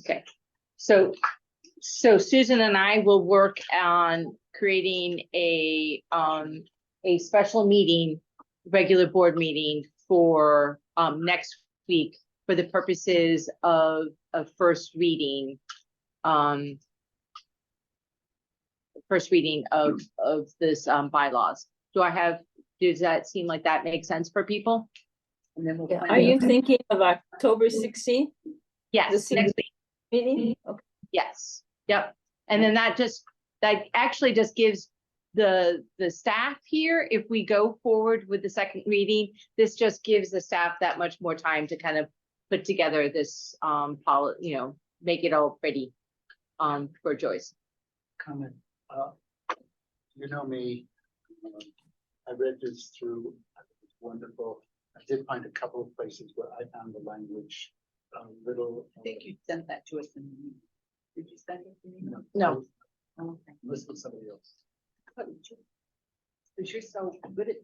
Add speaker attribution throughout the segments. Speaker 1: Okay, so, so Susan and I will work on creating a, um, a special meeting, regular board meeting for, um, next week for the purposes of, of first reading, um, first reading of, of this, um, bylaws. Do I have, does that seem like that makes sense for people? And then we'll.
Speaker 2: Yeah,
Speaker 1: plan
Speaker 2: Are
Speaker 1: it.
Speaker 2: you thinking of October sixteenth
Speaker 1: Yes,
Speaker 2: this
Speaker 1: next
Speaker 2: is-
Speaker 1: week.
Speaker 2: meeting? Okay.
Speaker 1: Yes, yep. And then that just, that actually just gives the, the staff here, if we go forward with the second reading, this just gives the staff that much more time to kind of put together this, um, poli, you know, make it all pretty, um, for Joyce.
Speaker 3: comment. Uh, You know me, um, I read this through, I think it's wonderful. I did find a couple of places where I found the language a little. uh,
Speaker 4: I think you sent that to us in. the meeting. Did you send it to me? Oh,
Speaker 3: you know,
Speaker 1: No.
Speaker 4: Okay.
Speaker 3: This was somebody else.
Speaker 4: Because you're so good at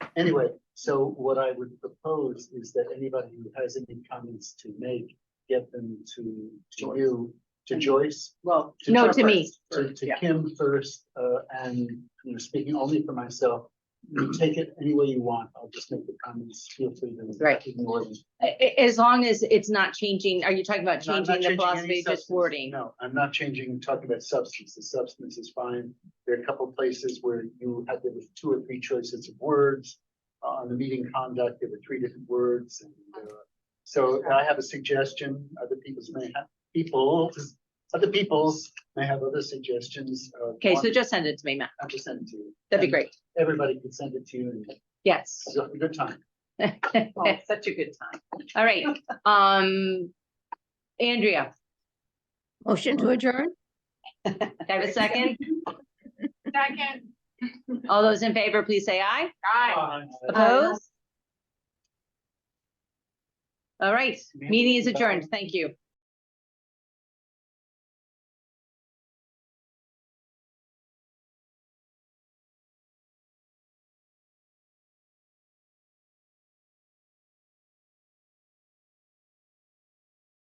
Speaker 4: that.
Speaker 3: Anyway, so what I would propose is that anybody who has any comments to make, get them to, to you, to Joyce.
Speaker 4: Well,
Speaker 1: No,
Speaker 3: Kim
Speaker 1: to me.
Speaker 3: first, To, to
Speaker 4: Yeah.
Speaker 3: Kim first, uh, and, you know, speaking only for myself, you take it any way you want. I'll just make the comments, feel free to.
Speaker 1: Right.
Speaker 3: ignore them.
Speaker 1: A- a- as long as it's not changing, are you talking about
Speaker 3: No, I'm not
Speaker 1: changing the
Speaker 3: any
Speaker 1: philosophy, just
Speaker 3: substance.
Speaker 1: wording?
Speaker 3: No, I'm not changing, talking about substance. The substance is fine. There are a couple places where you had, there was two or three choices of words. Uh, On the meeting conduct, there were three different words and, uh, so I have a suggestion. Other people's may have, people, other peoples may have other suggestions. uh,
Speaker 1: Okay, so
Speaker 3: one-
Speaker 1: just send it to me, Matt.
Speaker 3: I'll just send it to you.
Speaker 1: That'd be
Speaker 3: And
Speaker 1: great.
Speaker 3: Everybody can send it to you and
Speaker 1: Yes.
Speaker 3: you'll have a good time.
Speaker 4: oh, it's such a good time.
Speaker 1: All right, um, Andrea,
Speaker 2: Motion to adjourn?
Speaker 1: do I have a second? Second. All those in favor, please say aye.
Speaker 3: Bye.
Speaker 1: Opposed? All right, meeting is
Speaker 3: Aye.
Speaker 1: adjourned. Thank you.